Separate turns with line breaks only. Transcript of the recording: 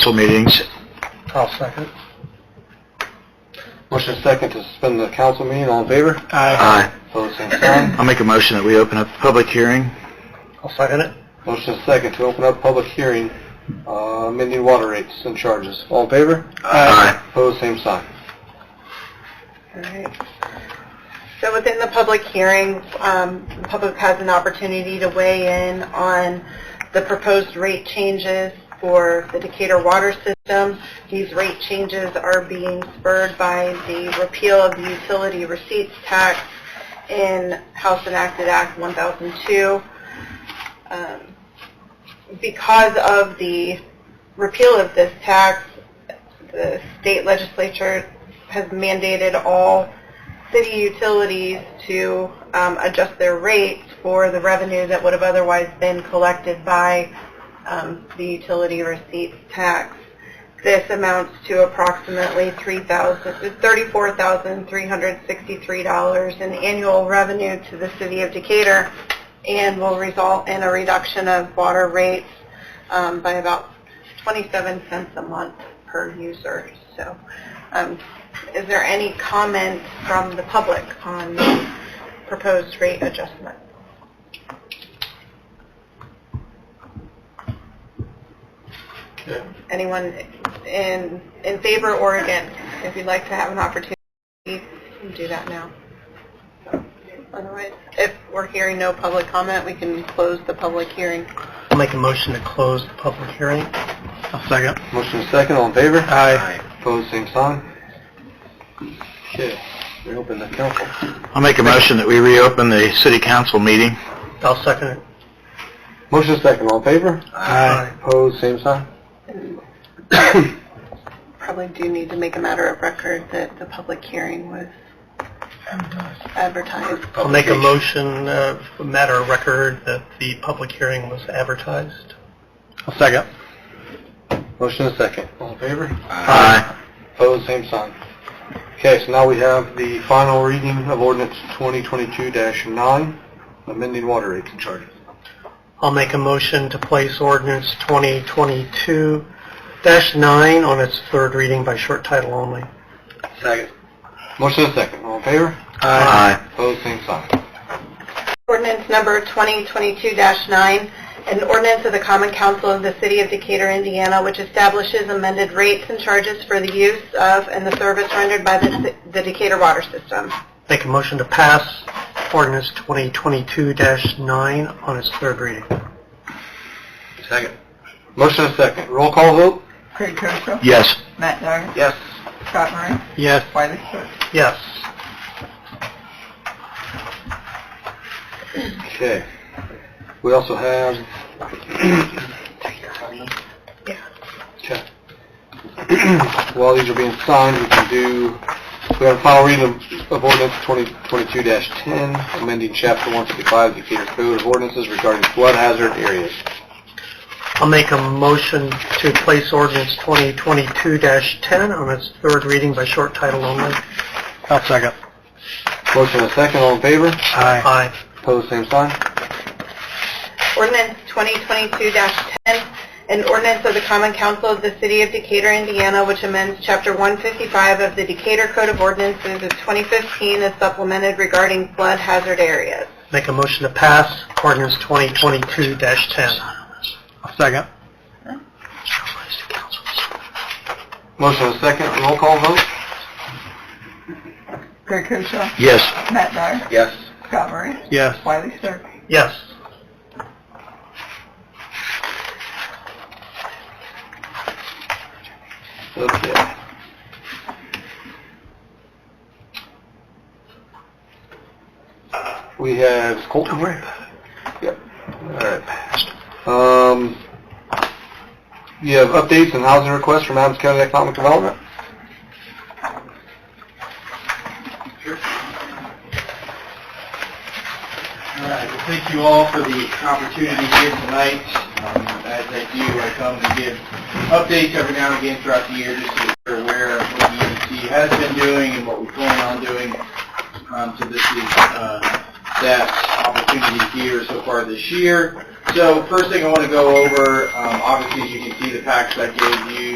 council meetings.
I'll second. Motion second to suspend the council meeting, all in favor?
Aye.
Opposed, same sign.
I'll make a motion that we open up the public hearing.
I'll second it. Motion second to open up public hearing, uh, amending water rates and charges, all in favor?
Aye.
Opposed, same sign.
Alright. So within the public hearing, um, the public has an opportunity to weigh in on the proposed rate changes for the Decatur water system. These rate changes are being spurred by the repeal of the utility receipts tax in House Enacted Act 1002. Um, Because of the repeal of this tax, the state legislature has mandated all city utilities to um, adjust their rates for the revenue that would have otherwise been collected by um, the utility receipts tax. This amounts to approximately three thousand, thirty-four thousand three hundred sixty-three dollars in annual revenue to the city of Decatur, and will result in a reduction of water rates um, by about 27 cents a month per user. So, um, is there any comment from the public on the proposed rate adjustment? Anyone in, in favor or against? If you'd like to have an opportunity, you can do that now. Otherwise, if we're hearing no public comment, we can close the public hearing.
I'll make a motion to close the public hearing. I'll second.
Motion second, all in favor?
Aye.
Opposed, same sign. Okay, we open the council.
I'll make a motion that we reopen the city council meeting.
I'll second it.
Motion second, all in favor?
Aye.
Opposed, same sign.
probably do need to make a matter of record that the public hearing was advertised.
I'll make a motion, uh, for matter of record, that the public hearing was advertised.
I'll second. Motion second, all in favor?
Aye.
Opposed, same sign. Okay, so now we have the final reading of ordinance 2022-9, amending water rates and charges.
I'll make a motion to place ordinance 2022-9 on its third reading by short title only.
Second. Motion is second, all in favor?
Aye.
Opposed, same sign.
Ordinance number 2022-9, an ordinance of the Common Council of the City of Decatur, Indiana, which establishes amended rates and charges for the use of and the service rendered by the the Decatur water system.
Make a motion to pass ordinance 2022-9 on its third reading.
Second. Motion is second, roll call vote?
Craig Koshaw,
Yes.
Matt Dyer,
Yes.
Scott Murray,
Yes.
Wiley Sir.
Yes.
Okay. We also have... Okay. While these are being signed, we can do, we have a final reading of- of ordinance 2022-10, amending chapter 155 of the Decatur Code of Ordinances regarding flood hazard areas.
I'll make a motion to place ordinance 2022-10 on its third reading by short title only.
I'll second. Motion is second, all in favor?
Aye.
Pose same sign.
Ordinance 2022-10, an ordinance of the Common Council of the City of Decatur, Indiana, which amends Chapter 155 of the Decatur Code of Ordinances of 2015 as supplemented regarding flood hazard areas.
Make a motion to pass ordinance 2022-10.
Second. Motion is second, roll call vote?
Craig Koshaw,
Yes.
Matt Dyer,
Yes.
Scott Murray,
Yes.
Wiley Sir.
Yes.
Okay. We have Colton here. Yep. Alright. Um, you have updates and housing requests from Adams County Economic Development?
All right, well, thank you all for the opportunity here tonight. Um, As I do, I come to give updates every now and again throughout the year, just so you're aware of what the EDC has been doing and what we're planning on doing. Um, So this is uh, that opportunity here so far this year. So first thing I want to go over, um, obviously, as you can see, the packs I gave you